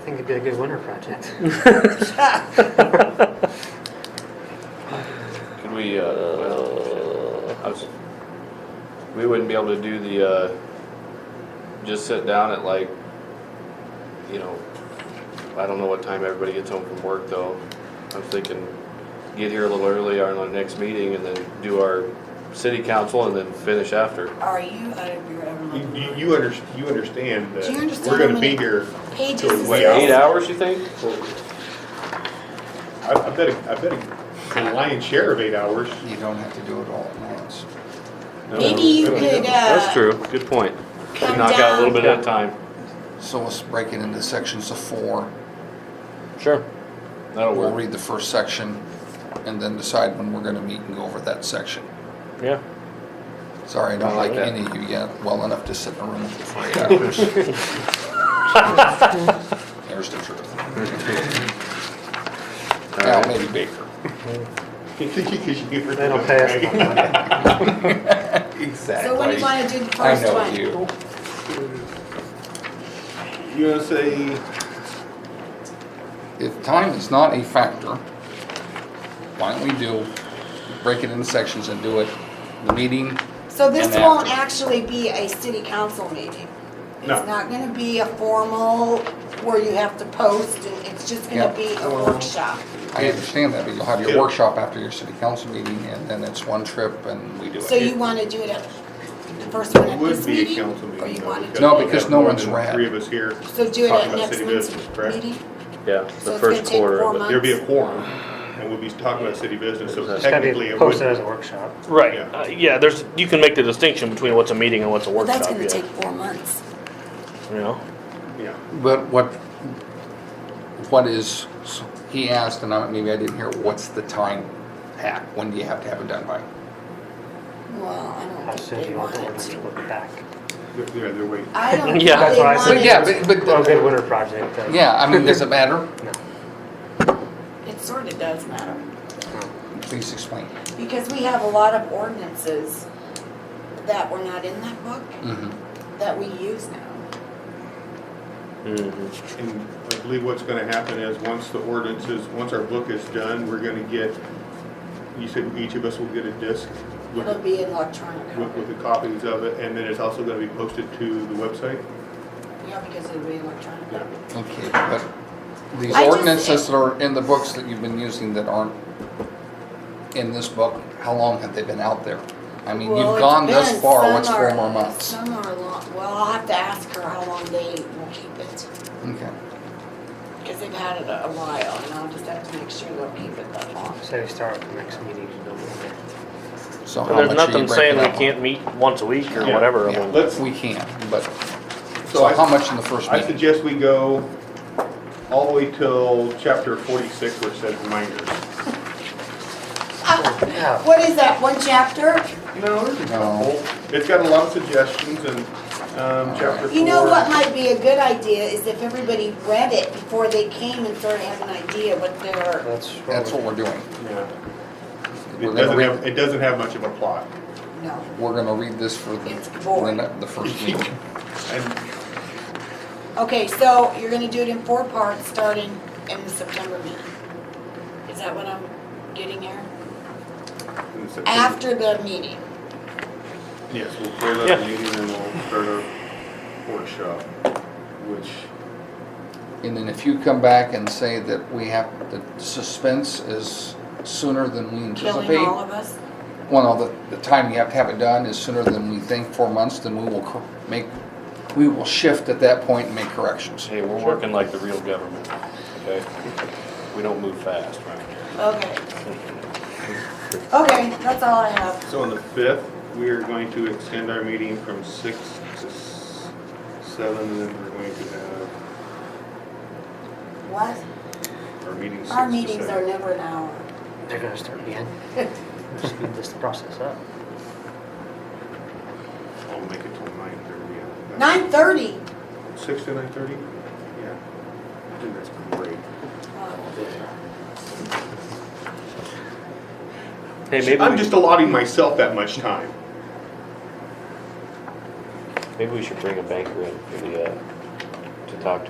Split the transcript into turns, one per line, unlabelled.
think it'd be a good winter project.
Could we, uh, I was, we wouldn't be able to do the, uh, just sit down at like, you know, I don't know what time everybody gets home from work though. I'm thinking, get here a little early on our next meeting and then do our city council and then finish after.
Are you out of your
You,
ever
you, you under, you understand
Do you
that
understand
we're
how
gonna
many-
be here,
Pages is
Wait,
this?
Eight hours, you think?
I, I bet, a- I bet a- a lion's share of eight hours.
You don't have to do it all at once.
Maybe you could, uh.
That's true, good point.
Come
Knock out a little
down.
bit at a time.
So let's break it into sections of four.
Sure. That'll
We'll
work,
read the first section and then decide when we're gonna meet and go over that section.
yeah.
Sorry, I don't
like
like
that.
any of you yet well enough to sit in a room with you for eight hours. There's the truth. Now,
right.
maybe Baker.
They don't pay us enough money.
Exactly.
So what do you wanna do the first one?
I know you.
You wanna say,
If time is not a factor, why don't we do, break it into sections and do it, the meeting,
So this
And after.
won't actually be a city council meeting? It's
No.
not gonna be a formal where you have to post, and it's just gonna
Yeah.
be a workshop.
I understand that, but you'll have your
Yeah.
workshop after your city council meeting, and then it's one trip and we do
So
it.
you wanna do it at, the first one
it
at
would
this
be a
meeting?
council
Or
meeting
you
though.
wanna,
No,
we've got
because no
more
one's
than
rat.
Three of us here.
so do it
talking
at
about
next
city
month's
business, correct?
meeting?
Yeah, the
So it's gonna
first
take
quarter
four
of it.
months?
There'd be a quorum and we'll be talking about city business, so
It's
It's gotta
technically
be
it
posted
would.
as a workshop.
Right,
Yeah.
uh, yeah, there's, you can make the distinction between what's a meeting and what's a
Well,
workshop,
that's gonna
yeah,
take four months.
You know,
Yeah.
But what, what is, he asked, and I, maybe I didn't hear, what's the time hack? When do you have to have it done by?
Well, I
How
don't
soon
think
do
they
you want the
want
winter
to.
to look back?
They're, they're- they're waiting.
I don't think they
Yeah.
That's why I
want
said.
But yeah, but, but,
Well, a good winter project. uh,
yeah, I mean, does it matter?
no.
It sort of does matter,
Please explain.
because we have a lot of ordinances that were not in that book
Mhm.
that we use now.
And I believe what's gonna happen is, once the ordinance is, once our book is done, we're gonna get, you said each of us will get a disc with,
It'll be electronic
with, with
copy.
the copies of it, and then it's also gonna be posted to the website?
Yeah, because it'll be electronic copy.
Okay, but these
I just-
ordinances that are in the books that you've been using that aren't in this book, how long have they been out there? I mean,
Well,
you've
it
gone thus
depends.
far,
Some
what's four
are-
more months?
Some are long, well, I'll have to ask her how long they will keep it,
Okay.
because they've had it a while, and I'll just have to make sure they'll keep it that long.
Say we start with the next meeting. no winter.
So
and
how
there's
much are you
nothing saying
breaking
we
up?
can't meet once a week or
Yeah.
whatever, I
Yeah,
mean,
Let's-
we can, but,
So
so
I-
how much in the first
I
meeting?
suggest we go all the way till chapter forty-six, where it says reminders.
Yeah.
What is that, one chapter?
No, there's a
No.
couple. It's got a lot of suggestions and, um, chapter four.
You know what might be a good idea is if everybody read it before they came and sort of has an idea what their,
That's
That's what
what
we're doing.
Yeah. It
We're gonna
doesn't
read,
have, it doesn't have much of a plot.
no.
we're gonna read this for the,
It's boring.
the- the first meeting.
And
Okay, so you're gonna do it in four parts, starting in the September meeting. Is that what I'm getting here?
and so-
After the meeting.
Yes, we'll clear up
Yeah.
the meeting and we'll start our workshop, which,
And then if you come back and say that we have, the suspense is sooner than we anticipate.
Killing all of us?
Well, no, the, the time you have to have it done is sooner than we think, four months, then we will cor- make, we will shift at that point and make corrections.
Hey, we're working like the real government, okay? We don't move fast, right?
Okay. Okay, that's all I have.
so on the fifth, we are going to extend our meeting from six to s- seven, and then we're going to have
What?
our meeting six to
Our meetings are
seven.
never an hour.
They're gonna start again. Speed this process up.
I'll make it till nine thirty.
Nine thirty?
Six to nine thirty? Yeah. I think that's great.
hey, maybe
I'm
we,
just allotting myself that much time.
Maybe we should bring a banker in for the, uh, to talk to